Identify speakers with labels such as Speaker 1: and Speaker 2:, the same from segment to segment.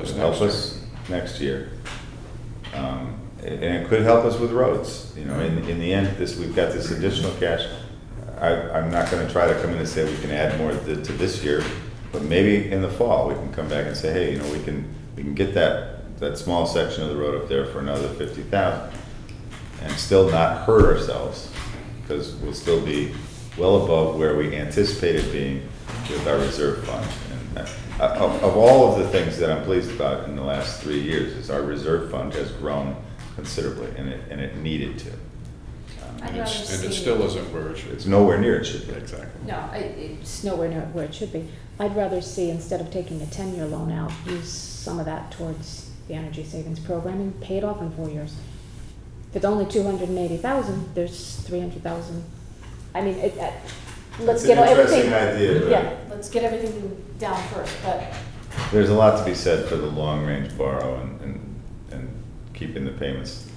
Speaker 1: Just help us next year. Um, And and it could help us with roads, you know, in, in the end, this, we've got this additional cash. I, I'm not gonna try to come in and say we can add more to, to this year, but maybe in the fall, we can come back and say, hey, you know, we can, we can get that, that small section of the road up there for another fifty thousand and still not hurt ourselves, because we'll still be well above where we anticipated being with our reserve fund. And that- uh, Of, of all of the things that I'm pleased about in the last three years, is our reserve fund has grown considerably, and it, and it needed to. Um,
Speaker 2: I'd
Speaker 3: And
Speaker 2: rather
Speaker 3: it's, and it
Speaker 2: see-
Speaker 3: still isn't where it should.
Speaker 1: It's nowhere near it should be.
Speaker 3: Exactly.
Speaker 2: No, I- it's,
Speaker 4: It's nowhere near where it should be. I'd rather see, instead of taking a ten-year loan out, use some of that towards the energy savings program and pay it off in four years. If it's only two hundred and eighty thousand, there's three hundred thousand. I mean, it, uh, let's
Speaker 1: It's
Speaker 4: get
Speaker 1: an
Speaker 4: everything.
Speaker 1: interesting idea, but-
Speaker 4: Yeah,
Speaker 2: let's get everything down first, but
Speaker 1: There's a lot to be said for the long-range borrow and, and, and keeping the payments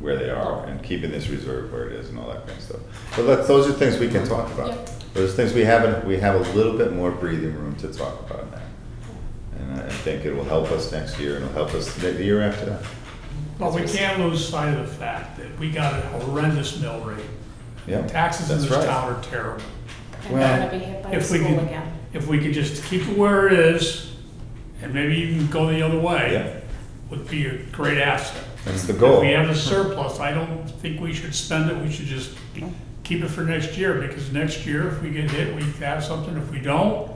Speaker 1: where they are and keeping this reserve where it is and all that kind of stuff. But let those are things we can talk
Speaker 2: Yep.
Speaker 1: about. Those things we haven't, we have a little bit more breathing room to talk about now. And I I think it will help us next year and it'll help us the the year after that.
Speaker 5: But we can't lose sight of the fact that we got a horrendous mill rate.
Speaker 1: Yeah,
Speaker 5: Taxes in
Speaker 1: that's
Speaker 5: this
Speaker 1: right.
Speaker 5: town are terrible.
Speaker 2: I'm
Speaker 1: Well,
Speaker 2: gonna be hit by the
Speaker 5: If we
Speaker 2: school
Speaker 5: could,
Speaker 2: again.
Speaker 5: if we could just keep it where it is, and maybe even go the other
Speaker 1: Yeah.
Speaker 5: way, would be a great asset.
Speaker 1: That's the
Speaker 5: If
Speaker 1: goal.
Speaker 5: we have a surplus, I don't think we should spend it, we should just keep it for next year, because next year, if we get hit, we have something, if we don't,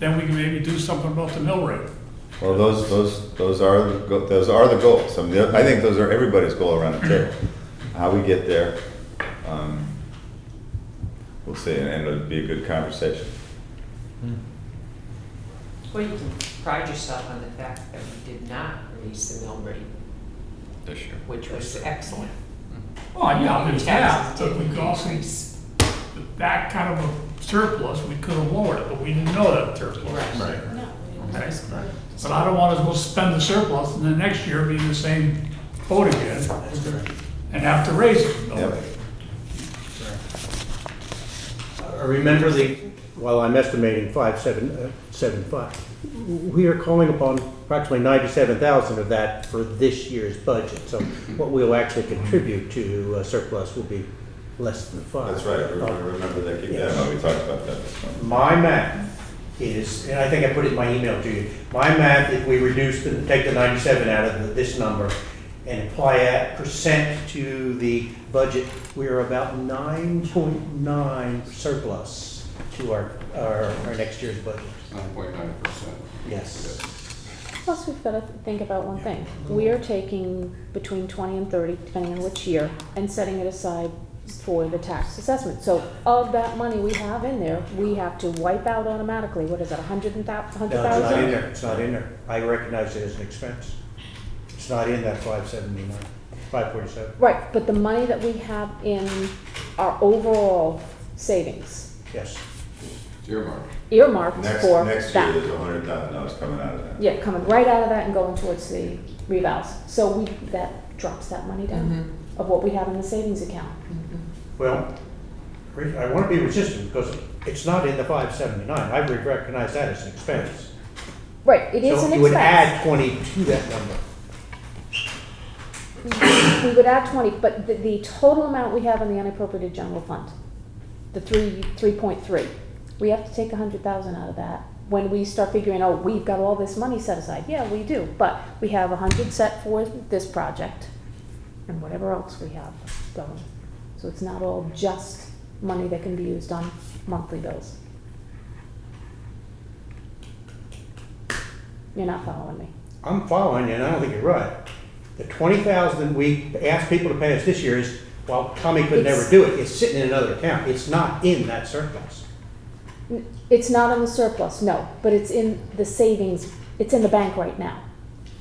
Speaker 5: then we can maybe do something about the mill rate.
Speaker 1: Well, those, those, those are, the go- those are the goals. I mean, I think those are everybody's goal around the table. How we get there, um, we'll see, and and it'll be a good conversation.
Speaker 6: Well, you can pride yourself on the fact that we did not raise the mill rate,
Speaker 3: This year.
Speaker 6: which was excellent.
Speaker 1: Oh,
Speaker 5: Well, yeah,
Speaker 6: Your
Speaker 5: there's that,
Speaker 6: taxes
Speaker 5: but we
Speaker 6: didn't
Speaker 5: could also
Speaker 6: increase.
Speaker 5: that kind of a surplus, we could have lowered it, but we didn't know that surplus.
Speaker 6: Right.
Speaker 2: No, we
Speaker 5: Okay.
Speaker 2: didn't.
Speaker 5: But I don't want us to go spend the surplus and then next year be in the same boat again and have to raise it.
Speaker 1: Yep.
Speaker 7: I Remember the, while I'm estimating five, seven, uh, seven, five, we are calling upon approximately ninety-seven thousand of that for this year's budget. So what we'll actually contribute to uh, surplus will be less than five.
Speaker 1: That's right, everybody remember that, keep that in mind, we talked about that this morning.
Speaker 7: My math is, and I think I put it in my email to you, my math, if we reduce, the take the ninety-seven out of the- this number and apply that percent to the budget, we are about nine point nine surplus to our, our, our next year's budget.
Speaker 3: Nine point nine percent.
Speaker 7: Yes.
Speaker 4: plus we've gotta think about one thing. We are taking between twenty and thirty, depending on which year, and setting it aside for the tax assessment. So of that money we have in there, we have to wipe out automatically, what is it, a hundred and thou, a hundred
Speaker 7: No, it's not
Speaker 4: thousand?
Speaker 7: in there, it's not in there. I recognize it as an expense. It's not in that five seventy-nine, five forty-seven.
Speaker 4: Right, but the money that we have in our overall savings
Speaker 7: Yes,
Speaker 3: Earmark.
Speaker 4: earmarked
Speaker 1: Next,
Speaker 4: for
Speaker 1: next year,
Speaker 4: that.
Speaker 1: there's a hundred thousand dollars coming out of that.
Speaker 4: Yeah, coming right out of that and going towards the revals. So we, that drops that money down of what we have in the savings account.
Speaker 7: well, re- I want to be resistant because it's not in the five seventy-nine. I would recognize that as an expense.
Speaker 4: Right, it is an
Speaker 7: So you would
Speaker 4: expense.
Speaker 7: add twenty to that number.
Speaker 4: We would add twenty, but the, the total amount we have in the unappropriated general fund, the three, three point three, we have to take a hundred thousand out of that. When we start figuring, oh, we've got all this money set aside, yeah, we do, but we have a hundred set for this project and whatever else we have going. So it's not all just money that can be used on monthly bills. You're not following me.
Speaker 7: I'm following you and I don't think you're right. The twenty thousand that we asked people to pay us this year is, well, Tommy could never
Speaker 4: It's-
Speaker 7: do it. It's sitting in another account. It's not in that surplus.
Speaker 4: It's not on the surplus, no, but it's in the savings, it's in the bank right now.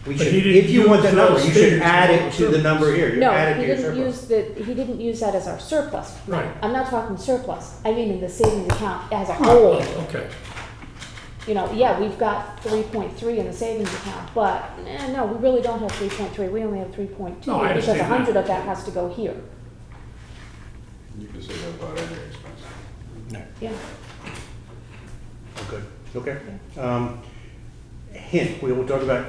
Speaker 7: We
Speaker 5: But
Speaker 7: should,
Speaker 5: he didn't
Speaker 7: if you want that
Speaker 5: use
Speaker 7: number,
Speaker 5: those
Speaker 7: you should
Speaker 5: figures
Speaker 7: add
Speaker 5: in
Speaker 7: it to the
Speaker 5: the
Speaker 7: number here. You
Speaker 4: No,
Speaker 7: add it
Speaker 4: he
Speaker 7: to your
Speaker 4: didn't
Speaker 7: surplus.
Speaker 4: use the, he didn't use that as our surplus.
Speaker 5: Right.
Speaker 4: I'm not talking surplus, I mean in the savings account as a whole.
Speaker 5: Okay.
Speaker 4: You know, yeah, we've got three point three in the savings account, but, eh, no, we really don't have three point three, we only have three point two.
Speaker 5: No, I
Speaker 4: Because a
Speaker 5: understand that.
Speaker 4: hundred of that has to go here,
Speaker 3: You can say that about any expense.
Speaker 4: yeah.
Speaker 7: Oh, Good, okay. Um, hint, we will talk about